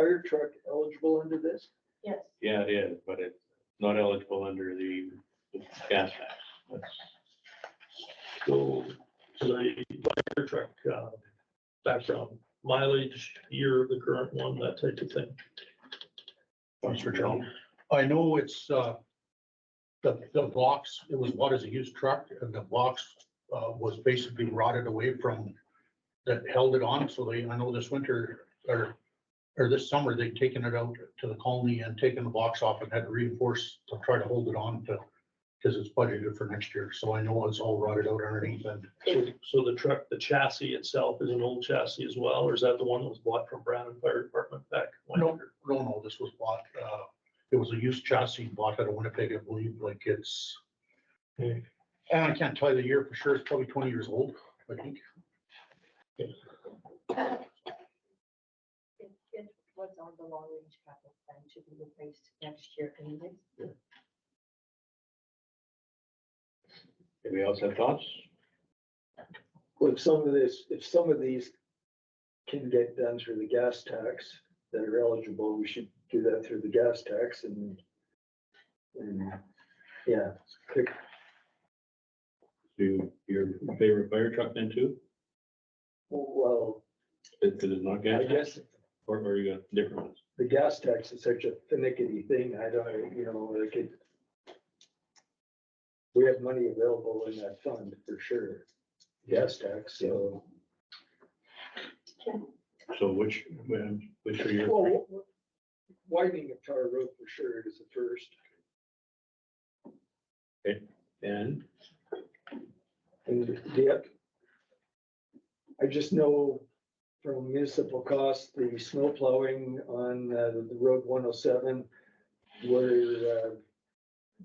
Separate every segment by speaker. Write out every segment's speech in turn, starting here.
Speaker 1: fire truck eligible under this?
Speaker 2: Yes,
Speaker 3: Yeah, it is, but it's not eligible under the gas tax. That's-
Speaker 4: So the fire truck, uh, background mileage, year of the current one, that type of thing. Mr. Jones.
Speaker 5: I know it's, uh, the, the box, it was bought as a used truck and the box, uh, was basically rotted away from that held it on. So they, I know this winter or, or this summer, they've taken it out to the colony and taken the box off and had to reinforce to try to hold it on to, because it's budgeted for next year. So I know it's all rotted out underneath and
Speaker 4: So, so the truck, the chassis itself is an old chassis as well, or is that the one that was bought from Brandon Fire Department back? when?
Speaker 5: No, no, no, this was bought, uh, it was a used chassis bought out of Winnipeg, I believe, like it's.
Speaker 4: Okay.
Speaker 5: And I can't tell you the year for sure, it's probably twenty years old, I think.
Speaker 2: it, it was on the long range capital plan to be replaced next year anyway.
Speaker 3: Anybody else have thoughts?
Speaker 1: Well, if some of this, if some of these can get done through the gas tax that are eligible, we should do that through the gas tax and, and, yeah, pick
Speaker 3: Do you- your favorite fire truck then too?
Speaker 1: well,
Speaker 3: That that is
Speaker 1: I
Speaker 3: not gas tax,
Speaker 1: guess
Speaker 3: or or you got different ones?
Speaker 1: the gas tax is such a finicky thing, I don't, you know, like it. We have money available in that fund for sure, gas tax, so.
Speaker 3: So which, which are your,
Speaker 1: Well, Widening of Tar Road for sure is the first,
Speaker 3: and
Speaker 1: and the, oth- I just know from municipal costs, the snow plowing on uh, the road one oh seven, where uh,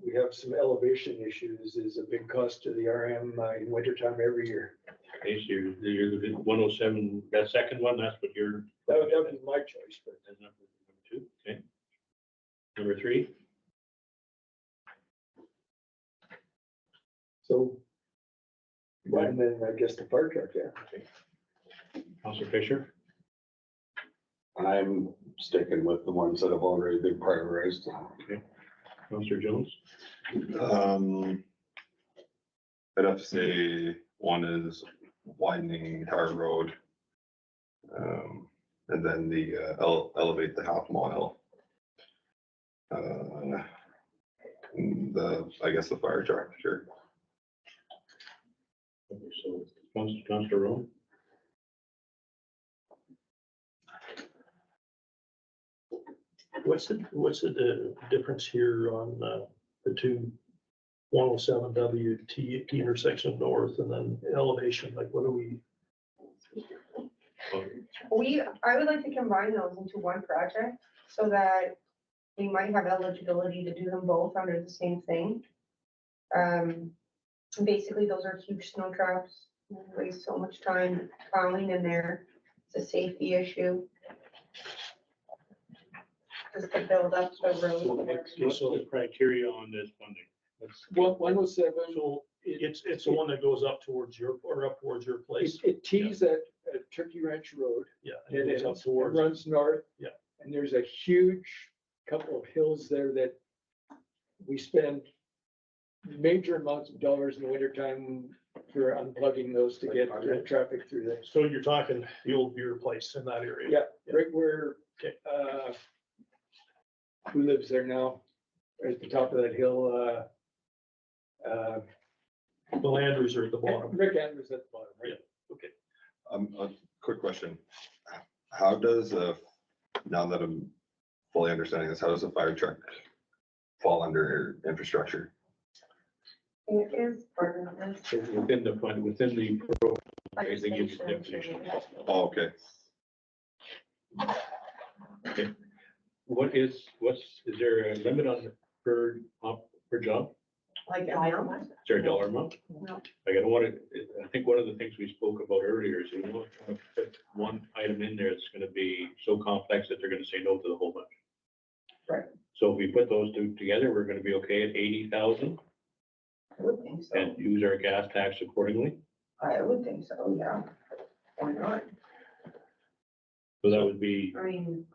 Speaker 1: we have some elevation issues is a big cost to the RM uh, in wintertime every year.
Speaker 3: okay, so you're, you're the one oh seven, that second one, that's what you're.
Speaker 1: That would, that would be my choice, but
Speaker 3: That's number number two, okay. Number three,
Speaker 1: so. And then I guess the fire truck, yeah.
Speaker 3: Counselor Fisher,
Speaker 6: I'm sticking with the ones that have already been prioritized.
Speaker 3: Counselor Jones,
Speaker 6: Um, I'd have to say one is widening Tar Road. Um, and then the uh, ele- elevate the half mile. Uh, and The, I guess the fire truck, sure.
Speaker 3: Okay, so Counselor, Counselor Rowe,
Speaker 4: What's the, what's the uh, difference here on uh, the two one oh seven W T intersection north and then elevation, like what are we?
Speaker 7: We, I would like to combine those into one project so that we might have eligibility to do them both under the same thing. Um, basically, those are huge snow traps, We waste so much time plowing in there, it's a safety issue. Just to build up the road.
Speaker 3: what's the criteria on this funding? Let's-
Speaker 1: One, one oh seven,
Speaker 4: So it's, it's the one that goes up towards your, or up towards your
Speaker 1: it,
Speaker 4: place.
Speaker 1: it tees at, at Turkey Ranch Road.
Speaker 4: Yeah.
Speaker 1: And
Speaker 4: goes
Speaker 1: it
Speaker 4: up
Speaker 1: it
Speaker 4: towards.
Speaker 1: runs north.
Speaker 4: Yeah.
Speaker 1: And there's a huge couple of hills there that we spend major amounts of dollars in the wintertime for unplugging those to get the traffic through there.
Speaker 4: So you're talking the old beer place in that area?
Speaker 1: Yeah, right where,
Speaker 4: Okay.
Speaker 1: uh, who lives there now? At the top of that hill, uh, uh,
Speaker 4: The Landers are at the bottom.
Speaker 1: Rick Andrews at the bottom, right?
Speaker 6: Um, a quick question. How does, uh, now that I'm fully understanding this, how does a fire truck fall under infrastructure?
Speaker 7: It is part of this.
Speaker 3: Within the fund, within the, Okay, they give you the
Speaker 7: legislation.
Speaker 6: Oh, okay.
Speaker 3: what is, what's, is there a limit on the per, op- per job?
Speaker 7: Like, I don't,
Speaker 3: Is there a dollar amount?
Speaker 7: No.
Speaker 3: Like, I don't want to, I think one of the things we spoke about earlier is we want to put one item in there that's going to be so complex that they're going to say no to the whole bunch.
Speaker 7: Right.
Speaker 3: So if we put those two together, we're going to be okay at eighty thousand
Speaker 7: I would think so,
Speaker 3: and use our gas tax accordingly.
Speaker 7: I would think so, yeah. Why not?
Speaker 3: So that would be
Speaker 7: I mean,